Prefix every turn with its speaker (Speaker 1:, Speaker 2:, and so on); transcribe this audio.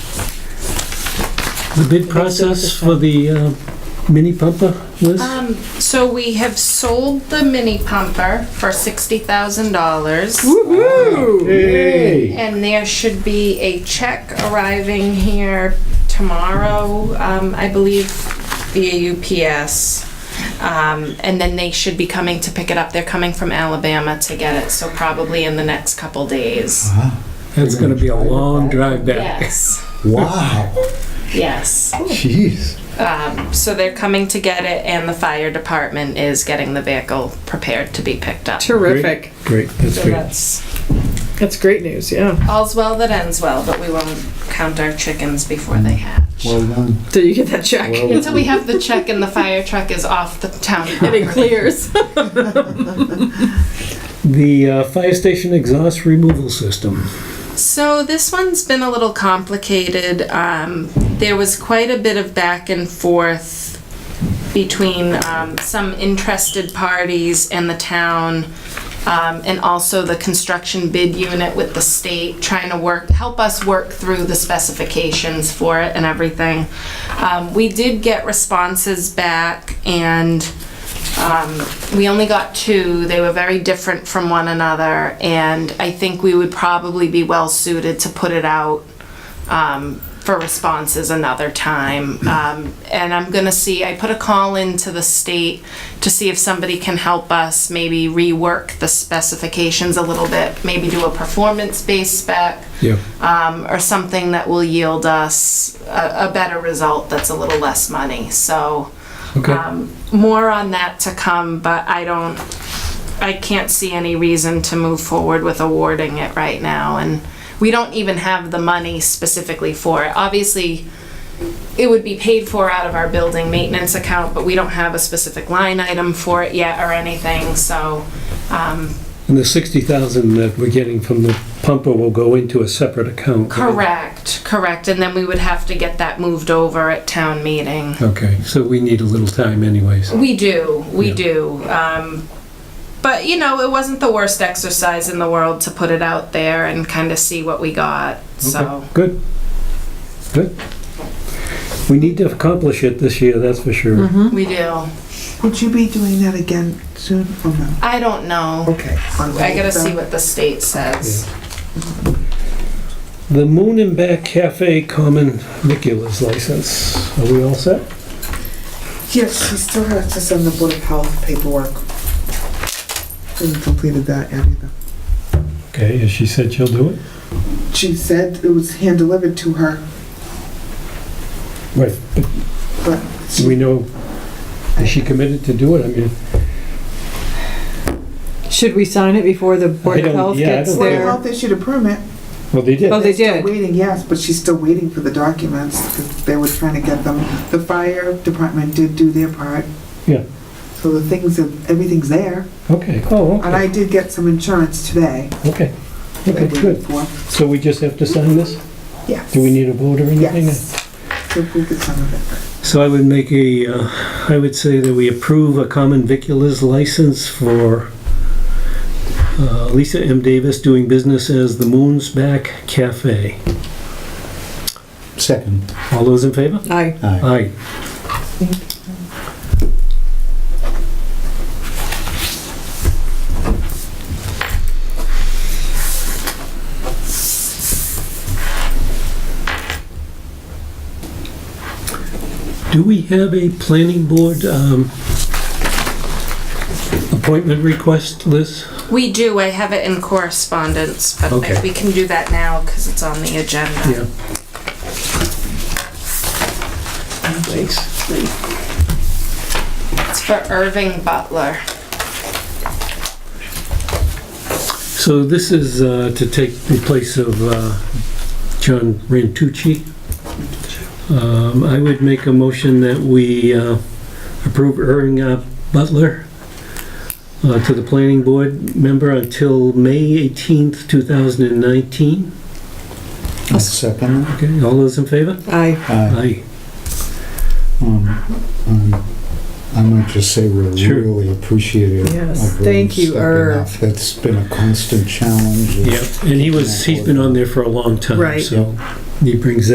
Speaker 1: The bid process for the uh, mini pumper was?
Speaker 2: Um, so we have sold the mini pumper for sixty thousand dollars.
Speaker 3: Hey!
Speaker 2: And there should be a check arriving here tomorrow, um, I believe, via UPS. Um, and then they should be coming to pick it up. They're coming from Alabama to get it, so probably in the next couple days.
Speaker 3: Uh-huh.
Speaker 1: That's gonna be a long drive back.
Speaker 2: Yes,
Speaker 3: Wow.
Speaker 2: yes.
Speaker 3: Jeez.
Speaker 2: Um, so they're coming to get it, and the fire department is getting the vehicle prepared to be picked up.
Speaker 4: Terrific.
Speaker 3: Great. That's
Speaker 2: So
Speaker 3: great.
Speaker 2: that's
Speaker 4: That's great news, yeah.
Speaker 2: all's well that ends well, but we won't count our chickens before they hatch.
Speaker 3: Well done.
Speaker 4: Till you get that check.
Speaker 3: Well
Speaker 2: Until we have the check and the fire truck is off the town.
Speaker 4: And it clears.
Speaker 1: The uh, fire station exhaust removal system.
Speaker 2: So this one's been a little complicated. Um, there was quite a bit of back and forth between um, some interested parties and the town, um, and also the construction bid unit with the state, trying to work, help us work through the specifications for it and everything. Um, we did get responses back, and um, we only got two. They were very different from one another, and I think we would probably be well suited to put it out um, for responses another time. Um, and I'm gonna see, I put a call into the state to see if somebody can help us maybe rework the specifications a little bit, maybe do a performance-based spec
Speaker 1: Yeah.
Speaker 2: um, or something that will yield us a, a better result that's a little less money. So,
Speaker 1: Okay.
Speaker 2: um, more on that to come, but I don't, I can't see any reason to move forward with awarding it right now. And we don't even have the money specifically for it. Obviously, it would be paid for out of our building maintenance account, but we don't have a specific line item for it yet or anything. So, um,
Speaker 1: And the sixty thousand that we're getting from the pumper will go into a separate account. right?
Speaker 2: Correct, correct, and then we would have to get that moved over at town meeting.
Speaker 1: Okay, so we need a little time anyways.
Speaker 2: We do, we
Speaker 1: Yeah.
Speaker 2: do. Um, but you know, it wasn't the worst exercise in the world to put it out there and kind of see what we got. So
Speaker 1: Okay, Good. Good. We need to accomplish it this year, that's for sure.
Speaker 2: we do.
Speaker 5: Would you be doing that again soon or no?
Speaker 2: I don't know.
Speaker 5: Okay. Um,
Speaker 2: I gotta see what the state says.
Speaker 1: The Moon and Back Cafe Common Vicula's license. Are we all set?
Speaker 5: Yes, she still has to send the Board of Health paperwork. Hasn't completed that yet either.
Speaker 1: Okay, as she said she'll do it?
Speaker 5: She said it was hand-delivered to her,
Speaker 1: Right, but
Speaker 5: but
Speaker 1: do we know, is she committed to do it? I mean,
Speaker 4: Should we sign it before the Board
Speaker 1: I
Speaker 4: of
Speaker 1: don't-
Speaker 4: Health
Speaker 1: yeah, I
Speaker 4: gets
Speaker 1: don't
Speaker 5: Board of
Speaker 4: there?
Speaker 5: Health issued a permit.
Speaker 1: well, they did.
Speaker 4: Oh, they
Speaker 5: They're
Speaker 4: did.
Speaker 5: Waiting, yes, but she's still waiting for the documents, because they were trying to get them. The fire department did do their part.
Speaker 1: Yeah.
Speaker 5: So the things, of- everything's there,
Speaker 1: Okay, oh,
Speaker 5: and
Speaker 1: okay,
Speaker 5: I did get some insurance today.
Speaker 1: okay.
Speaker 5: that I
Speaker 1: Okay,
Speaker 5: did
Speaker 1: good.
Speaker 5: for-
Speaker 1: So we just have to sign this?
Speaker 5: Yes.
Speaker 1: Do we need a vote or anything?
Speaker 5: Yes. To approve the sum of it.
Speaker 1: So I would make a, uh, I would say that we approve a common vicula's license for uh, Lisa M. Davis doing business as the Moon's Back Cafe.
Speaker 3: Second.
Speaker 1: All those in favor?
Speaker 4: Aye.
Speaker 3: Aye.
Speaker 1: Aye. Do we have a planning board um, appointment request, Liz?
Speaker 2: We do. I have it in correspondence, but
Speaker 1: Okay.
Speaker 2: we can do that now because it's on the agenda.
Speaker 1: Yeah. Thanks.
Speaker 2: It's for Irving Butler.
Speaker 1: So this is uh, to take the place of uh, John Rantucci. Um, I would make a motion that we uh, approve Irving uh, Butler uh, to the planning board member until May 18th, 2019.
Speaker 3: I'll Second.
Speaker 1: Okay, all those in favor?
Speaker 4: Aye.
Speaker 3: Aye.
Speaker 1: Aye.
Speaker 3: Um, um, I might just say we're
Speaker 1: Sure.
Speaker 3: really appreciative.
Speaker 4: Yes,
Speaker 3: of Irving
Speaker 4: thank you,
Speaker 3: stepping
Speaker 4: Irv.
Speaker 3: up. That's been a constant challenge.
Speaker 1: Yep, and he was, he's been on there for a long time,
Speaker 4: Right.
Speaker 1: so he brings that